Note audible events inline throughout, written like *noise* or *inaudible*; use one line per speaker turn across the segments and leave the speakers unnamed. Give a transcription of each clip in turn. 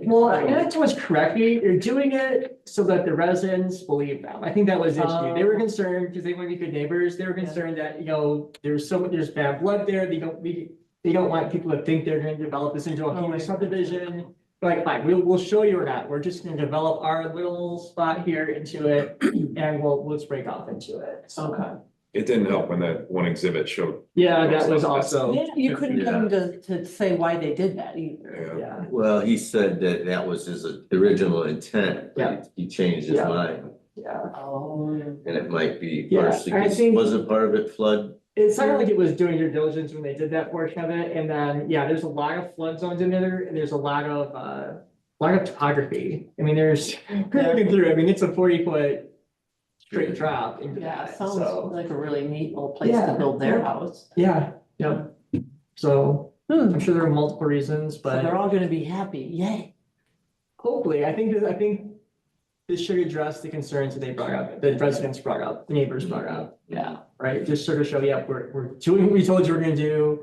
Well, I think that was correct. They- They're doing it so that the residents believe them. I think that was the issue. They were
Oh.
concerned because they want to be good neighbors. They were
Yeah.
concerned that, you know, there's so, there's bad blood there. They don't, we, they don't want people to think they're going to develop this into a
Oh,
huge
right.
subdivision. Like, fine, we'll, we'll show you or not. We're just going to develop our little spot here
*clears throat*
into it and we'll, let's break off into it. So,
Okay.
It didn't help when that one exhibit showed,
yeah, that was also,
Yeah, You couldn't get them to, to say why they did that either.
yeah,
yeah.
Well, he said that that was his original intent,
Yeah.
but he changed his
Yeah.
mind,
Yeah,
Oh.
and it might be
Yeah,
partially,
I
'cause
think-
wasn't part of it flood?
it sounded like it was doing your diligence when they did that portion of it, and then, yeah, there's a lot of flood zones in there, and there's a lot of, uh, lot of topography, I mean, there's, *laughs* looking through, I mean, it's a forty foot straight drop into
Yeah,
that,
sounds
so,
like a really neat little place to
Yeah.
build their house.
yeah, yeah. So,
Hmm,
I'm sure there are multiple reasons,
so
but
they're all gonna be happy, yay.
hopefully, I think, that- I think this should address the concerns that they brought up, the residents brought up, the neighbors brought up.
Yeah,
right? Just sort of show, yeah, we're, we're doing what we told you we're gonna do.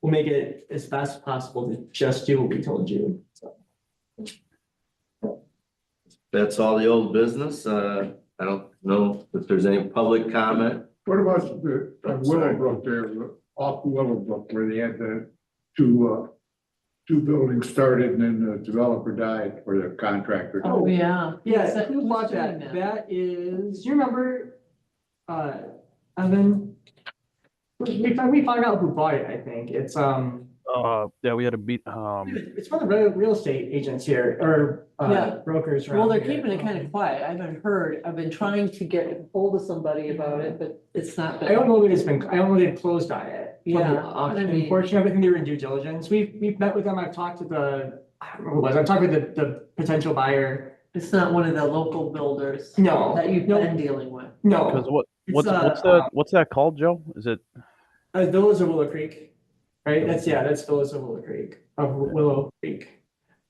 We'll make it as fast as possible to just do what we told you. So,
That's all the old business, uh, I don't know if there's any public comment.
What about the uh,
I'm sorry.
Willowbrook there, off Willowbrook, where they had the two, uh, two buildings started and then the developer died or the contractor. died.
oh, yeah. Is
yeah,
that-
who
who's
bought
doing
that? That is, do you remember? Uh, Evan? We, we found, we found out who bought it, I think. It's, um,
Uh, yeah, we had a beat, um,
it's one of the real, real estate agents here or, uh,
Yeah.
brokers.
Well, they're
around here.
keeping it kind of quiet. I haven't heard, I've been trying to get hold of somebody about it, but it's not. been-
I don't know that it's been, I don't know they've closed on it. from the
Yeah,
auction.
I mean-
Unfortunately, I think they were in due diligence. We've, we've met with them. I've talked to the, I don't remember who it was. I've talked with the, the potential buyer.
It's not one of the local builders
No,
that you've
no.
been dealing with.
because
no,
what,
it's,
what's,
uh,
what's that, what's that called, Joe? Is it,
uh, those of Willow Creek, right? That's, yeah, that's those of Willow Creek, of Willow Creek.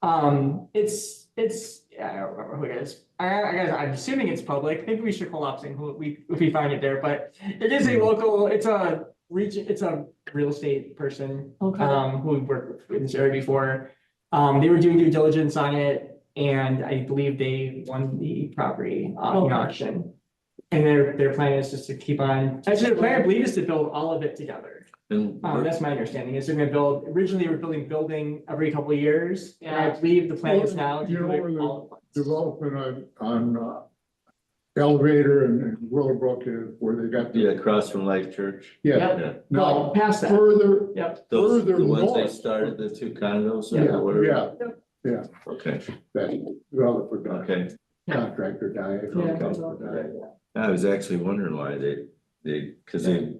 Um, it's, it's, yeah, I don't remember who it is. I, I guess, I'm assuming it's public. Maybe we should call up and who we, if we find it there, but it is a
Hmm.
local, it's a region, it's a real estate person.
Okay,
um, who had worked with this area before. Um, they were doing due diligence on it and I believe they won the property uh, in
Okay.
auction. And their, their plan is just to keep on, actually, their plan, I believe, is to build all of it together.
And
Um, that's my understanding, is they're gonna build, originally they were building building every couple of years. And I
Yeah.
believe the plan is now to
You know,
do it
we're-
all at once.
Development on, on uh, elevator and and Willowbrook uh, where they got. the-
yeah, across from Life Church.
Yeah,
Yep.
Yeah.
Well,
now
past that,
further,
yep,
Those,
Further
the ones they
north.
started, the two condos
yeah,
or whatever?
yeah,
Okay,
that developer died,
okay.
contractor died.
Yeah.
developer died.
I was actually wondering why they, they, cause they,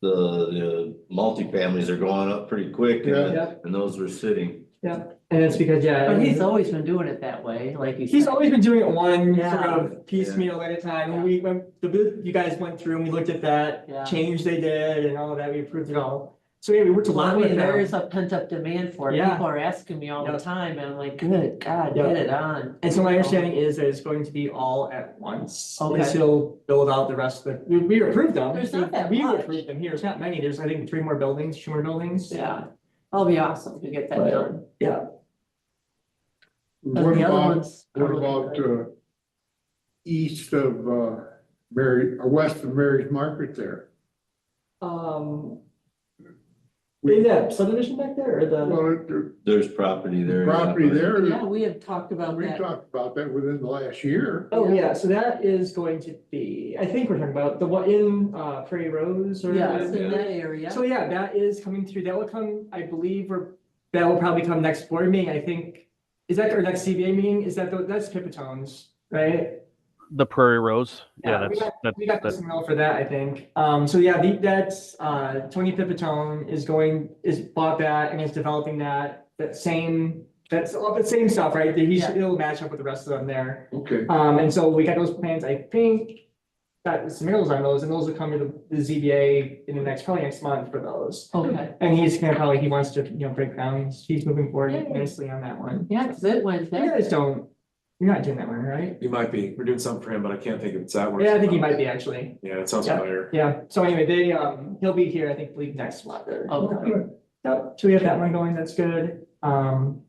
the, the multifamilies are going up pretty quick and,
Yeah.
Yeah.
the- and those were sitting.
and it's because, yeah.
but he's always been doing it that way, like you said.
He's always been doing it one sort
Yeah.
of piecemeal at a time. When we, when the, booth- you guys went through and we looked at
Yeah.
that change they did and all of that, we approved it all. So yeah, we worked a
Well, I
lot
mean,
with
there
them.
is a pent up demand for it.
Yeah.
People are asking me all the
Yep.
time, and I'm like, good God,
Yep.
get it on.
And so my understanding is that it's going to be all at once.
Okay.
And so build out the rest of the, we, we approved them.
There's not that
We
much.
approved them here. It's not many. There's, I think, three more buildings, two more buildings.
Yeah, that'll be awesome to get that
Right.
done. But
What
the other
about,
ones are
what
really
about,
good.
uh, east of, uh, Mary, or west of Mary's Market there?
Um,
We-
is that subdivision back there or the?
Well, the
There's property there. yeah,
property
but-
there,
Yeah, we have talked about
we
that.
talked about that within the last year.
Oh, yeah, so that is going to be, I think we're talking about the one in, uh, Prairie Rose or?
Yeah, it's
Yeah.
in that area.
So yeah, that is coming through. That will come, I believe, or that will probably come next board meeting, I think. Is that our next CBA meeting? Is that, the- that's Pipitones, right?
the Prairie Rose?
Yeah,
Yeah,
we
that's, that,
We got
that-
this mail for that, I think. Um, so yeah, the- that's, uh, Tony Pipitone is going, is bought that and is developing that, that same, that's all the same stuff, right? That he's,
Yeah.
it'll match up with the rest of them there.
Okay,
Um, and so we got those plans, I think, got some arrows on those, and those will come to the- the ZBA in the next, probably next month for those.
Okay,
And he's gonna probably, he wants to, you know, break down, he's- he's moving forward
Yeah.
nicely on that one.
yeah, cause it went
You
that.
guys don't, you're not doing that one, right?
you might be, we're doing something for him, but I can't think of it's that one.
Yeah, I think he might be actually,
Yeah, it sounds
Yeah.
familiar.
yeah, so anyway, they, um, he'll be here, I think, believe next month or.
Okay.
Yep, so we have that one going, that's good, um.